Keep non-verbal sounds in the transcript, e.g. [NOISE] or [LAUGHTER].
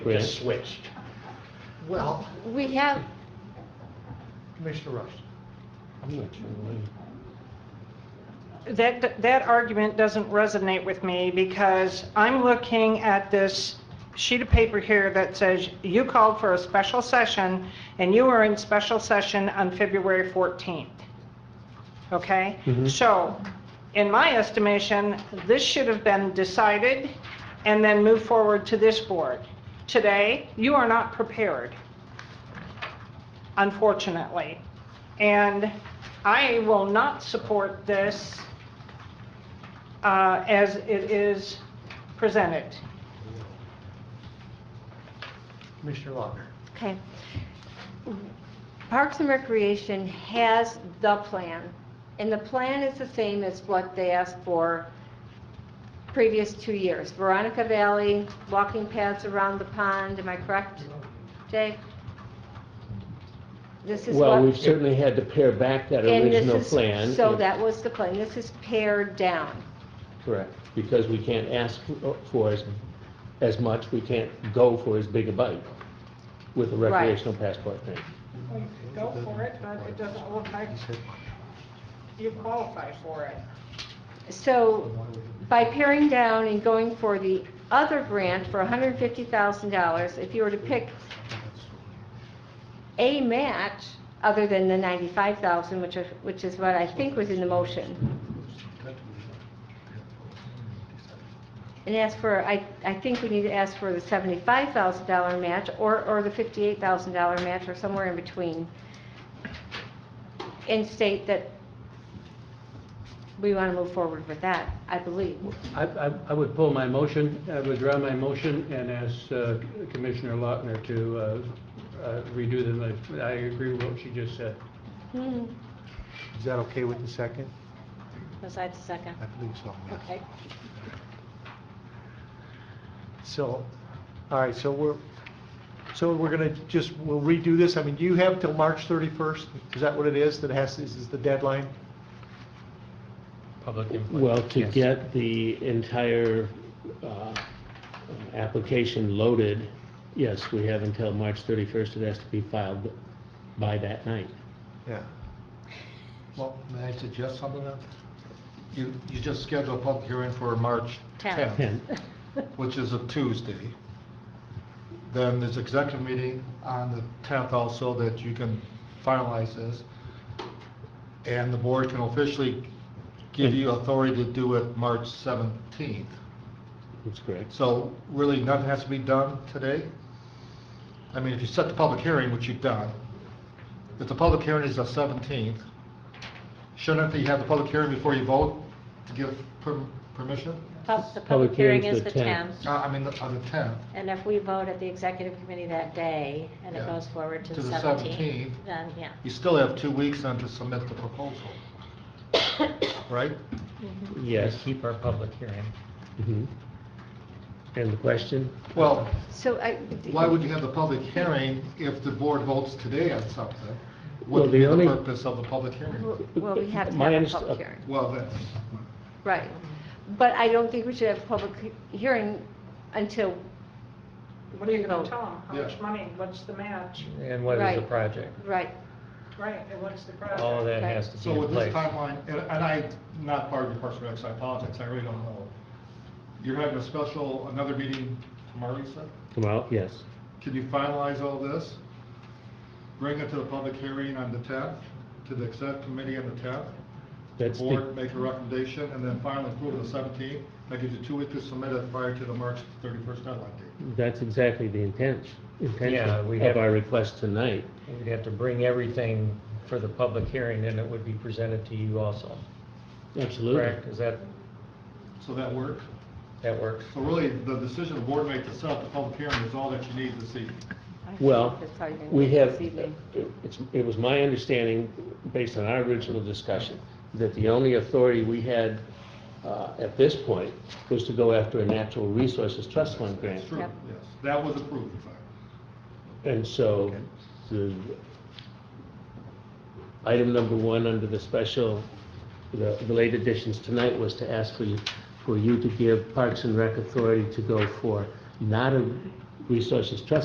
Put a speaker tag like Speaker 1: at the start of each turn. Speaker 1: It just switched.
Speaker 2: Well,
Speaker 3: We have,
Speaker 2: Commissioner Rush,
Speaker 1: I'm not sure when.
Speaker 4: That, that argument doesn't resonate with me because I'm looking at this sheet of paper here that says you called for a special session and you were in special session on February 14th. Okay?
Speaker 1: Mhm.
Speaker 4: So, in my estimation, this should have been decided and then moved forward to this board. Today, you are not prepared, unfortunately. And I will not support this uh, as it is presented.
Speaker 2: Commissioner Lochner.
Speaker 3: okay. Parks and Recreation has the plan, and the plan is the same as what they asked for previous two years. Veronica Valley, walking paths around the pond, am I correct, Jay? This is what...
Speaker 1: Well, we've certainly had to pare back that
Speaker 3: and this
Speaker 1: original
Speaker 3: is-
Speaker 1: plan.
Speaker 3: So
Speaker 1: and-
Speaker 3: that was the plan, this is pared down.
Speaker 1: Correct, because we can't ask for as, as much, we can't go for as big a bite with a
Speaker 3: Right.
Speaker 1: recreational passport thing.
Speaker 4: Go for it, but it doesn't look like you qualify for it.
Speaker 3: So by paring down and going for the other grant for $150,000, if you were to pick a match other than the 95,000, which is, which is what I think was in the motion, and ask for, I, I think we need to ask for the $75,000 match or, or the $58,000 match or somewhere in between, and state that we want to move forward with that, I believe.
Speaker 5: I, I I would pull my motion, I would draw my motion and ask uh, Commissioner Lautner to uh, uh, redo the, I agree with what she just said.
Speaker 3: Hmm,
Speaker 2: Is that okay with the second?
Speaker 3: was that the second?
Speaker 2: I believe so, yes.
Speaker 3: Okay.
Speaker 2: So, all right, so we're, so we're gonna just, we'll redo this, I mean, do you have till March 31st? Is that what it is, that has, is is the deadline?
Speaker 5: Public input.
Speaker 1: Well, to
Speaker 5: Yes.
Speaker 1: get the entire uh, application loaded, yes, we have until March 31st. It has to be filed by that night.
Speaker 2: Yeah.
Speaker 6: Well, may I suggest something then? You, you just schedule a public hearing for March
Speaker 3: Tenth.
Speaker 6: 10th, which is a Tuesday. Then there's executive meeting on the 10th also that you can finalize this. And the board can officially give you authority to do it March 17th.
Speaker 1: That's correct.
Speaker 6: So really, nothing has to be done today? I mean, if you set the public hearing, which you've done, if the public hearing is the 17th, shouldn't you have the public hearing before you vote to give per- permission?
Speaker 7: Pub- The
Speaker 1: Public
Speaker 7: public hearing
Speaker 1: hearing's
Speaker 7: is the
Speaker 1: the 10th.
Speaker 7: 10th,
Speaker 6: Uh, I mean, on the 10th.
Speaker 7: and if we vote at the executive committee that day, and it
Speaker 6: Yeah.
Speaker 7: goes forward to
Speaker 6: To
Speaker 7: the
Speaker 6: the
Speaker 7: 17th,
Speaker 6: 17th.
Speaker 7: then, yeah.
Speaker 6: You still have two weeks then to submit the proposal, [COUGHS] right?
Speaker 1: Yes.
Speaker 5: Keep our public hearing.
Speaker 1: Mhm. And the question?
Speaker 6: Well,
Speaker 3: So I,
Speaker 6: why would you have the public hearing if the board votes today on something? What
Speaker 1: Well,
Speaker 6: would
Speaker 1: the
Speaker 6: be the
Speaker 1: only-
Speaker 6: purpose of the public hearing?
Speaker 3: well, we have to
Speaker 1: My
Speaker 3: have a
Speaker 1: underst- uh,
Speaker 3: public hearing,
Speaker 6: Well, then,
Speaker 3: right. But I don't think we should have a public he- hearing until,
Speaker 4: What are you going
Speaker 3: Vote.
Speaker 4: to tell them? How
Speaker 6: Yeah.
Speaker 4: much money? What's the match?
Speaker 5: And
Speaker 3: what is the Right.
Speaker 5: project?
Speaker 3: right,
Speaker 4: Right, and what's the project?
Speaker 3: that has
Speaker 5: to
Speaker 6: So with this timeline, and and I'm not part of the Parks and Rec, so I apologize, I really don't know. You're having a special, another meeting tomorrow, you said?
Speaker 1: Come out, yes.
Speaker 6: Can you finalize all this? Bring it to the public hearing on the 10th, to the exec committee on the 10th? The
Speaker 1: That's the-
Speaker 6: board make a recommendation, and then finally approve on the 17th? That gives you two weeks to submit it prior to the March 31st deadline date.
Speaker 1: That's exactly the intent,
Speaker 8: Yeah, we
Speaker 1: intention
Speaker 8: have-
Speaker 1: of our request tonight.
Speaker 8: We'd have to bring everything for the public hearing, and it would be presented to you also, correct?
Speaker 1: Absolutely.
Speaker 8: Is that,
Speaker 6: So that work?
Speaker 8: that works?
Speaker 6: So really, the decision the board makes to set up the public hearing is all that you need to see.
Speaker 1: Well,
Speaker 3: that's how you're going to
Speaker 1: we
Speaker 3: do it
Speaker 1: have,
Speaker 3: this evening.
Speaker 1: it's, it was my understanding, based on our original discussion, that the only authority we had uh, at this point was to go after a natural resources trust fund grant.
Speaker 6: That's true, yes.
Speaker 3: Yep.
Speaker 6: That was approved, in fact.
Speaker 1: And so, the, item number one under the special, the, the late additions tonight was to ask for you, for you to give Parks and Rec authority to go for not a resources trust